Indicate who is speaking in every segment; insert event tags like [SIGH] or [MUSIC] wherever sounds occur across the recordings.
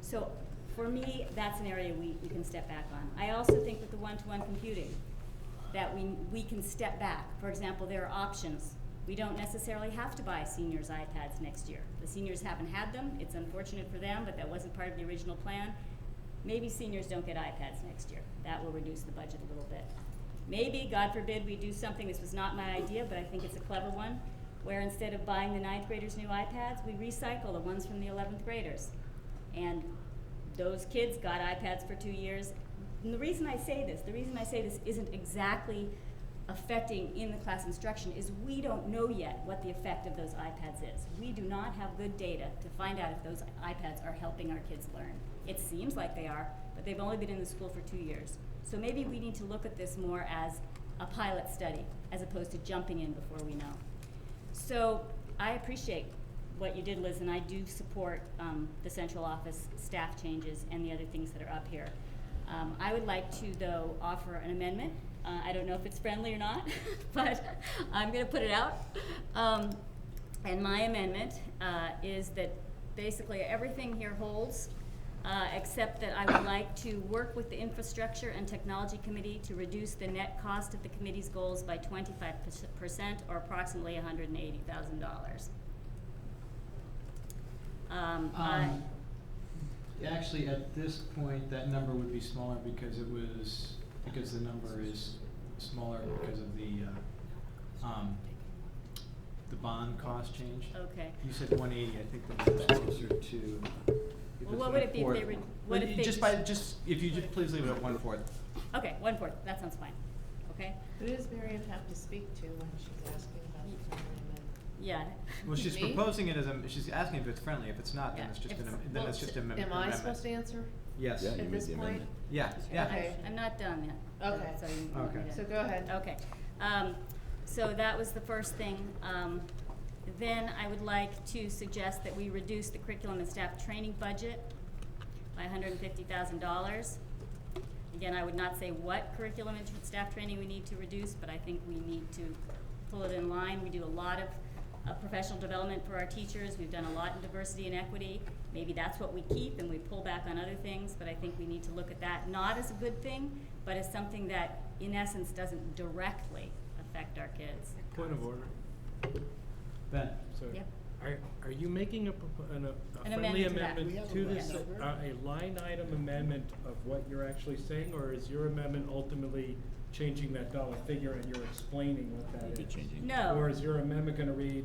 Speaker 1: So for me, that's an area we, we can step back on. I also think with the one-to-one computing, that we, we can step back. For example, there are options. We don't necessarily have to buy seniors iPads next year. The seniors haven't had them. It's unfortunate for them, but that wasn't part of the original plan. Maybe seniors don't get iPads next year. That will reduce the budget a little bit. Maybe, God forbid, we do something, this was not my idea, but I think it's a clever one, where instead of buying the ninth graders new iPads, we recycle the ones from the eleventh graders. And those kids got iPads for two years. And the reason I say this, the reason I say this isn't exactly affecting in the class instruction is we don't know yet what the effect of those iPads is. We do not have good data to find out if those iPads are helping our kids learn. It seems like they are, but they've only been in the school for two years. So maybe we need to look at this more as a pilot study as opposed to jumping in before we know. So I appreciate what you did, Liz, and I do support um, the central office staff changes and the other things that are up here. Um, I would like to, though, offer an amendment. Uh, I don't know if it's friendly or not, [LAUGHS] but I'm going to put it out. Um, and my amendment uh, is that basically everything here holds, uh, except that I would like to work with the Infrastructure and Technology Committee to reduce the net cost of the committee's goals by twenty-five percent, or approximately hundred and eighty thousand dollars. Um, I,
Speaker 2: Um, Actually, at this point, that number would be smaller because it was, because the number is smaller because of the, uh, um, the bond cost change.
Speaker 1: okay.
Speaker 2: You said one eighty, I think the number was closer to. uh, if
Speaker 1: Well,
Speaker 2: it's
Speaker 1: what would it be if they
Speaker 2: one-fourth.
Speaker 1: were- what
Speaker 2: Well,
Speaker 1: if
Speaker 2: you
Speaker 1: they
Speaker 2: Just by,
Speaker 1: just-
Speaker 2: just, if you just please leave it at one fourth.
Speaker 1: Okay, one-fourth, that sounds fine, okay?
Speaker 3: Who does Miriam have to speak to when she's asking about the friendly amendment?
Speaker 1: Yeah.
Speaker 2: Well, she's
Speaker 3: Me?
Speaker 2: proposing it as a, she's asking if it's friendly, if it's not, then
Speaker 1: Yeah,
Speaker 2: it's just an,
Speaker 1: it's-
Speaker 2: am- then it's just a mem- amendment.
Speaker 3: Am I supposed to answer
Speaker 2: Yes,
Speaker 4: Yeah, you
Speaker 3: at
Speaker 4: made
Speaker 3: this
Speaker 4: the
Speaker 3: point?
Speaker 4: amendment.
Speaker 2: yeah, yeah,
Speaker 3: Okay.
Speaker 1: I'm not done yet.
Speaker 3: Okay.
Speaker 1: So you want me
Speaker 2: Okay.
Speaker 1: to-
Speaker 3: So go ahead.
Speaker 1: Okay, um, so that was the first thing. Um, then I would like to suggest that we reduce the curriculum and staff training budget by hundred and fifty thousand dollars. Again, I would not say what curriculum and tr- staff training we need to reduce, but I think we need to pull it in line. We do a lot of, uh professional development for our teachers, we've done a lot in diversity and equity. Maybe that's what we keep and we pull back on other things, but I think we need to look at that, not as a good thing, but as something that in essence doesn't directly affect our kids.
Speaker 5: Point of order.
Speaker 2: Ben,
Speaker 5: So
Speaker 1: Yep.
Speaker 5: are, are you making a, propo- an, a- a
Speaker 1: An
Speaker 5: friendly
Speaker 1: amendment to that. We
Speaker 5: amendment
Speaker 1: have
Speaker 5: to
Speaker 1: a
Speaker 5: this,
Speaker 1: leftover.
Speaker 5: uh, a line item amendment of what you're actually saying? Or is your amendment ultimately changing that dollar figure and you're explaining what that is?
Speaker 4: You'd be changing.
Speaker 1: No.
Speaker 5: Or is your amendment gonna read,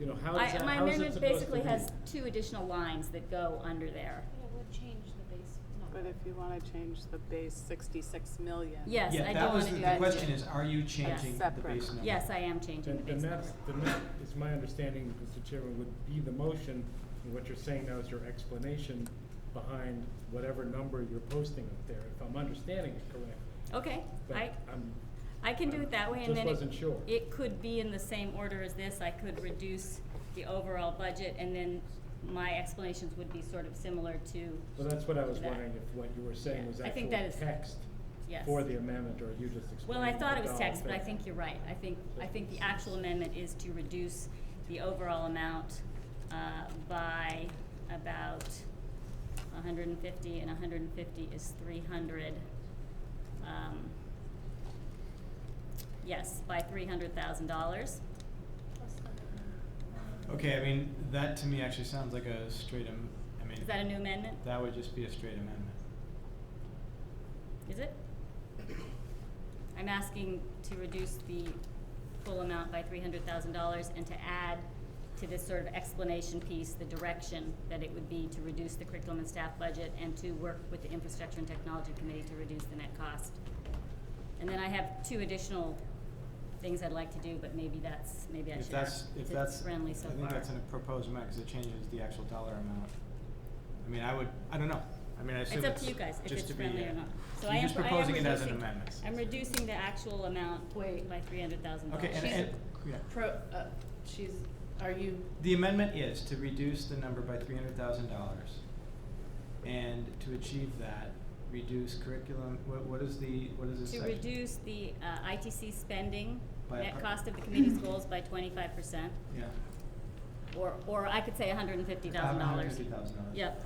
Speaker 5: you know, how is
Speaker 1: I,
Speaker 5: that,
Speaker 1: my
Speaker 5: how is it
Speaker 1: amendment
Speaker 5: supposed to
Speaker 1: basically
Speaker 5: read?
Speaker 1: has two additional lines that go under there.
Speaker 6: Yeah, would change the base
Speaker 7: But
Speaker 6: number.
Speaker 7: if you wanna change the base sixty-six million.
Speaker 1: Yes, I
Speaker 2: yeah,
Speaker 1: do
Speaker 2: that
Speaker 1: wanna
Speaker 2: was,
Speaker 1: do
Speaker 2: the
Speaker 1: that.
Speaker 2: the question is, are you changing the
Speaker 7: Separate.
Speaker 2: base number?
Speaker 1: Yes, I am changing the
Speaker 5: Then,
Speaker 1: base
Speaker 5: then
Speaker 1: number.
Speaker 5: that's, then that is my understanding, Mr. Chairman, would be the motion, and what you're saying now is your explanation behind whatever number you're posting up there, if I'm understanding it correctly.
Speaker 1: Okay,
Speaker 5: But
Speaker 1: I,
Speaker 5: I'm,
Speaker 1: I can do it that way, and
Speaker 5: Just
Speaker 1: then it-
Speaker 5: wasn't sure.
Speaker 1: it could be in the same order as this, I could reduce the overall budget, and then my explanations would be sort of similar to,
Speaker 5: well, that's what I was
Speaker 1: That.
Speaker 5: wondering, if what you were saying
Speaker 1: Yeah,
Speaker 5: was
Speaker 1: I
Speaker 5: actual
Speaker 1: think that is-
Speaker 5: text
Speaker 1: yes.
Speaker 5: for the amendment, or you just explained
Speaker 1: Well, I thought it
Speaker 5: the
Speaker 1: was
Speaker 5: dollar
Speaker 1: text, but I
Speaker 5: figure.
Speaker 1: think you're right, I think, I think the actual amendment is to reduce the overall amount, uh, by about hundred and fifty, and hundred and fifty is three hundred. Um, yes, by three hundred thousand dollars.
Speaker 2: Okay, I mean, that to me actually sounds like a straight, am- I mean,
Speaker 1: Is that a new amendment?
Speaker 2: that would just be a straight amendment.
Speaker 1: Is it? I'm asking to reduce the full amount by three hundred thousand dollars and to add to this sort of explanation piece, the direction that it would be to reduce the curriculum and staff budget and to work with the Infrastructure and Technology Committee to reduce the net cost. And then I have two additional things I'd like to do, but maybe that's, maybe I
Speaker 2: If
Speaker 1: should
Speaker 2: that's,
Speaker 1: ask,
Speaker 2: if
Speaker 1: since
Speaker 2: that's,
Speaker 1: it's
Speaker 2: I
Speaker 1: friendly so far.
Speaker 2: think that's in a proposed amount, cause it changes the actual dollar amount. I mean, I would, I don't know, I mean, I assume
Speaker 1: It's up
Speaker 2: it's
Speaker 1: to you guys, if
Speaker 2: just
Speaker 1: it's
Speaker 2: to be,
Speaker 1: friendly
Speaker 2: uh,
Speaker 1: or not. So I
Speaker 2: you're
Speaker 1: am-
Speaker 2: just
Speaker 1: I am
Speaker 2: proposing it as an
Speaker 1: reducing-
Speaker 2: amendment.
Speaker 1: I'm reducing the actual amount
Speaker 3: Wait.
Speaker 1: by three hundred thousand dollars.
Speaker 2: Okay, and,
Speaker 3: She's
Speaker 2: and, yeah,
Speaker 3: Pro, uh, she's, are you,
Speaker 2: the amendment is to reduce the number by three hundred thousand dollars. And to achieve that, reduce curriculum, what, what is the, what is this
Speaker 1: To
Speaker 2: section?
Speaker 1: reduce the uh, ITC spending,
Speaker 2: By a
Speaker 1: net
Speaker 2: per-
Speaker 1: cost of the committee's goals by twenty-five percent,
Speaker 2: Yeah.
Speaker 1: or, or I could say hundred and fifty thousand dollars.
Speaker 2: $150,000.
Speaker 1: Yep.